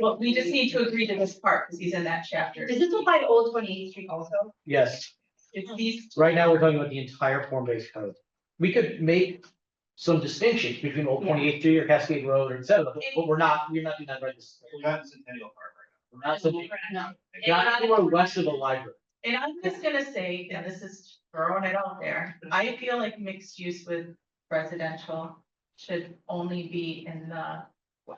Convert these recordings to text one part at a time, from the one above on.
But we just need to agree to this part, because he's in that chapter. Does this apply to Old Twenty Eighth Street also? Yes, It's these, right now we're talking about the entire form-based code. We could make some distinctions between Old Yeah. Twenty Eighth Street or Cascade Road or et cetera, but but we're not, we're not doing that right this. We're not in Centennial Park We're not subject, No. not anywhere west of the library. and I'm just gonna say, and this is throwing it out there, I feel like mixed use with residential should only be in the, I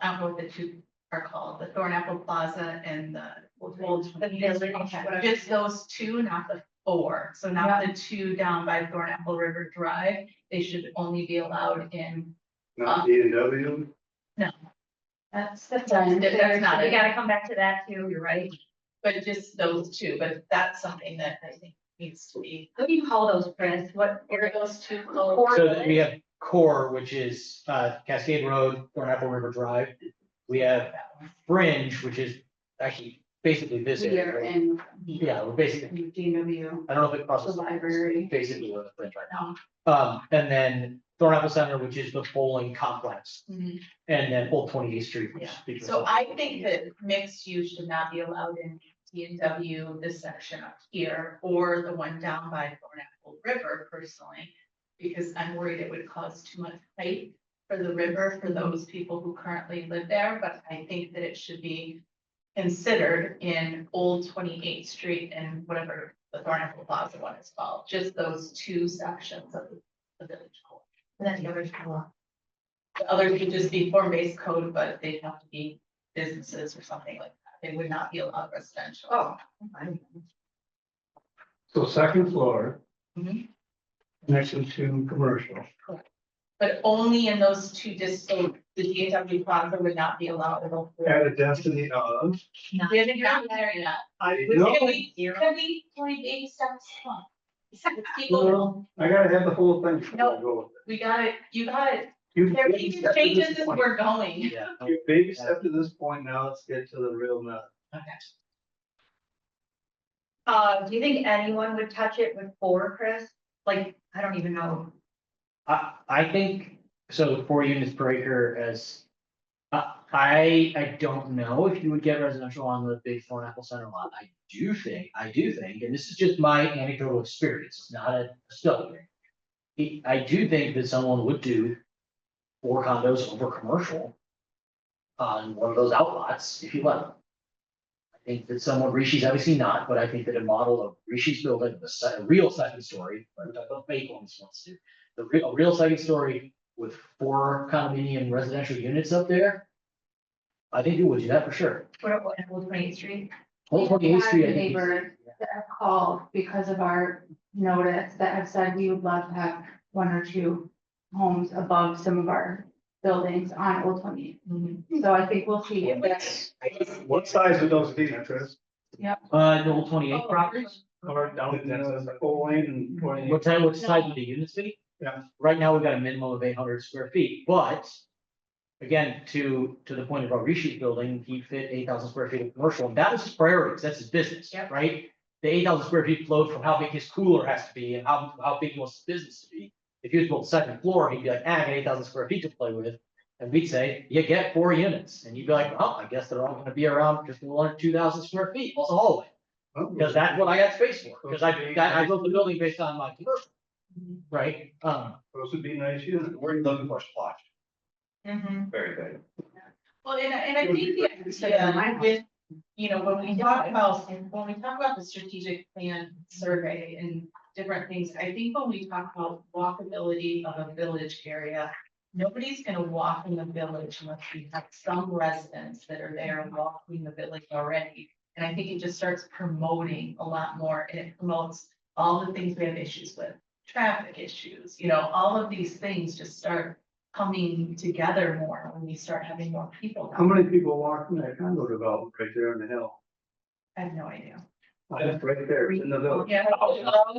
don't know what the two are called, the Thornapple Plaza and the Old The Twenty village, Eighth Street. whatever. Just those two, not the four, so not the two down by Thornapple River Drive, they should only be allowed in, right now. Not D and W. That's, that's done. That- that's not We it. gotta come back to that too. you're right. But just those two, but that's something that I think needs to be. What do you call those, Chris? What? What are those two called? Core So that we village? have core, which is uh Cascade Road, Thornapple River Drive. We have fringe, which is actually basically this area. right? in Yeah, we're basically, DW, I don't know if it crosses. library. Basically, we're the fringe right Oh. now. Um, and then Thornapple Center, which is the bowling complex, Mm-hmm. Mhm. and then Old Twenty Eighth Street. which Yeah. speaks for So itself. I think that mixed use should not be allowed in T and W, this section up here, or the one down by Thornapple River personally. Because I'm worried it would cause too much fight for the river for those people who currently live there, but I think that it should be. Considered in Old Twenty Eighth Street and whatever the Thornapple Plaza one is called, just those two sections of the- the village core. And then the others come along. The others could just be form-based code, but they'd have to be businesses or something like that. They would not be allowed residential. Oh. So second floor. Mhm. Next to commercial. But only in those two distinct, the DAW plaza would not be allowed. at all. At a density of. We haven't gotten there yet. I Can no, we, can we, can we baby steps? Come on. People, no, I gotta have the whole thing. No. we got it, you got it. You There are these changes as we're going. Yeah. You baby step to this point, now let's get to the real nut. Uh, do you think anyone would touch it with four, Chris? Like, I don't even know. I, I think, so four units per acre as, I, I, I don't know if you would get residential on the big Thorn Apple Center lot. I do think, I do think, and this is just my anecdotal experience, it's not a study. I- I do think that someone would do four condos over commercial on one of those outlots if you let them. I think that someone, Rishi's obviously not, but I think that a model of Rishi's building, the se- a real second story, or the fake ones wants to the real, a real second story with four condominium residential units up there. I think it would do that for sure. What, what, Old Twenty Eighth Street? Whole twenty eighth street, I think. is- Neighbor that have called because of our notice that have said we would love to have one or two homes above some of our buildings on Old Twenty. Mhm. So I think we'll see if that's What size would those be, Chris? Uh, the whole twenty eight properties. Or down to the whole lane Mm-hmm. and twenty. What time, what size would the units be? Yeah. Right now, we've got a minimum of eight hundred square feet, but again, to, to the point of our reshoot building, he fit eight thousand square feet of commercial, and that was his priorities, that's his business, Yep. right? The eight thousand square feet flowed from how big his cooler has to be and how, how big he wants his business to be. If he was built second floor, he'd be like, ah, I got eight thousand square feet to play with, and we'd say, you get four units, and you'd be like, oh, I guess they're all gonna be around just one or two thousand square feet, plus a hallway. Oh, Because that's what I got space for, because I, that- I built the building based on my commercial. Right, um, Those would be nice units. We're looking for splotch, Mhm. very good. Well, and, I- and I think the idea with, you know, when we talk about, when we talk about the strategic plan survey and different things, I think when we talk about walkability of a village area, nobody's gonna walk in the village unless we have some residents that are there and walking the village already. And I think it just starts promoting a lot more and it promotes all the things we have issues with, traffic issues, you know, all of these things just start coming together more when we start having more people. How many people walk in that condo development right there on the hill? I have no idea. That's right there, it's in the village. Yeah.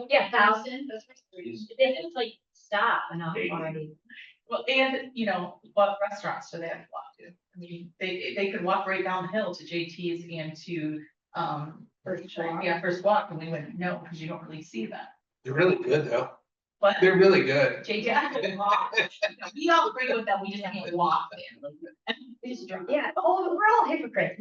Yeah, thousand. Is- They just like stop and I'll already. Well, and, you know, what restaurants do they have to walk to? I mean, they, they could walk right down the hill to JT's and to, um, First Walk. yeah, First Walk, and we wouldn't know, because you don't really see that. They're really good though. But They're really good. JT, I could walk, You know, we all agree with that, we just can't walk there. We just drop- Yeah, oh, we're all hypocrites.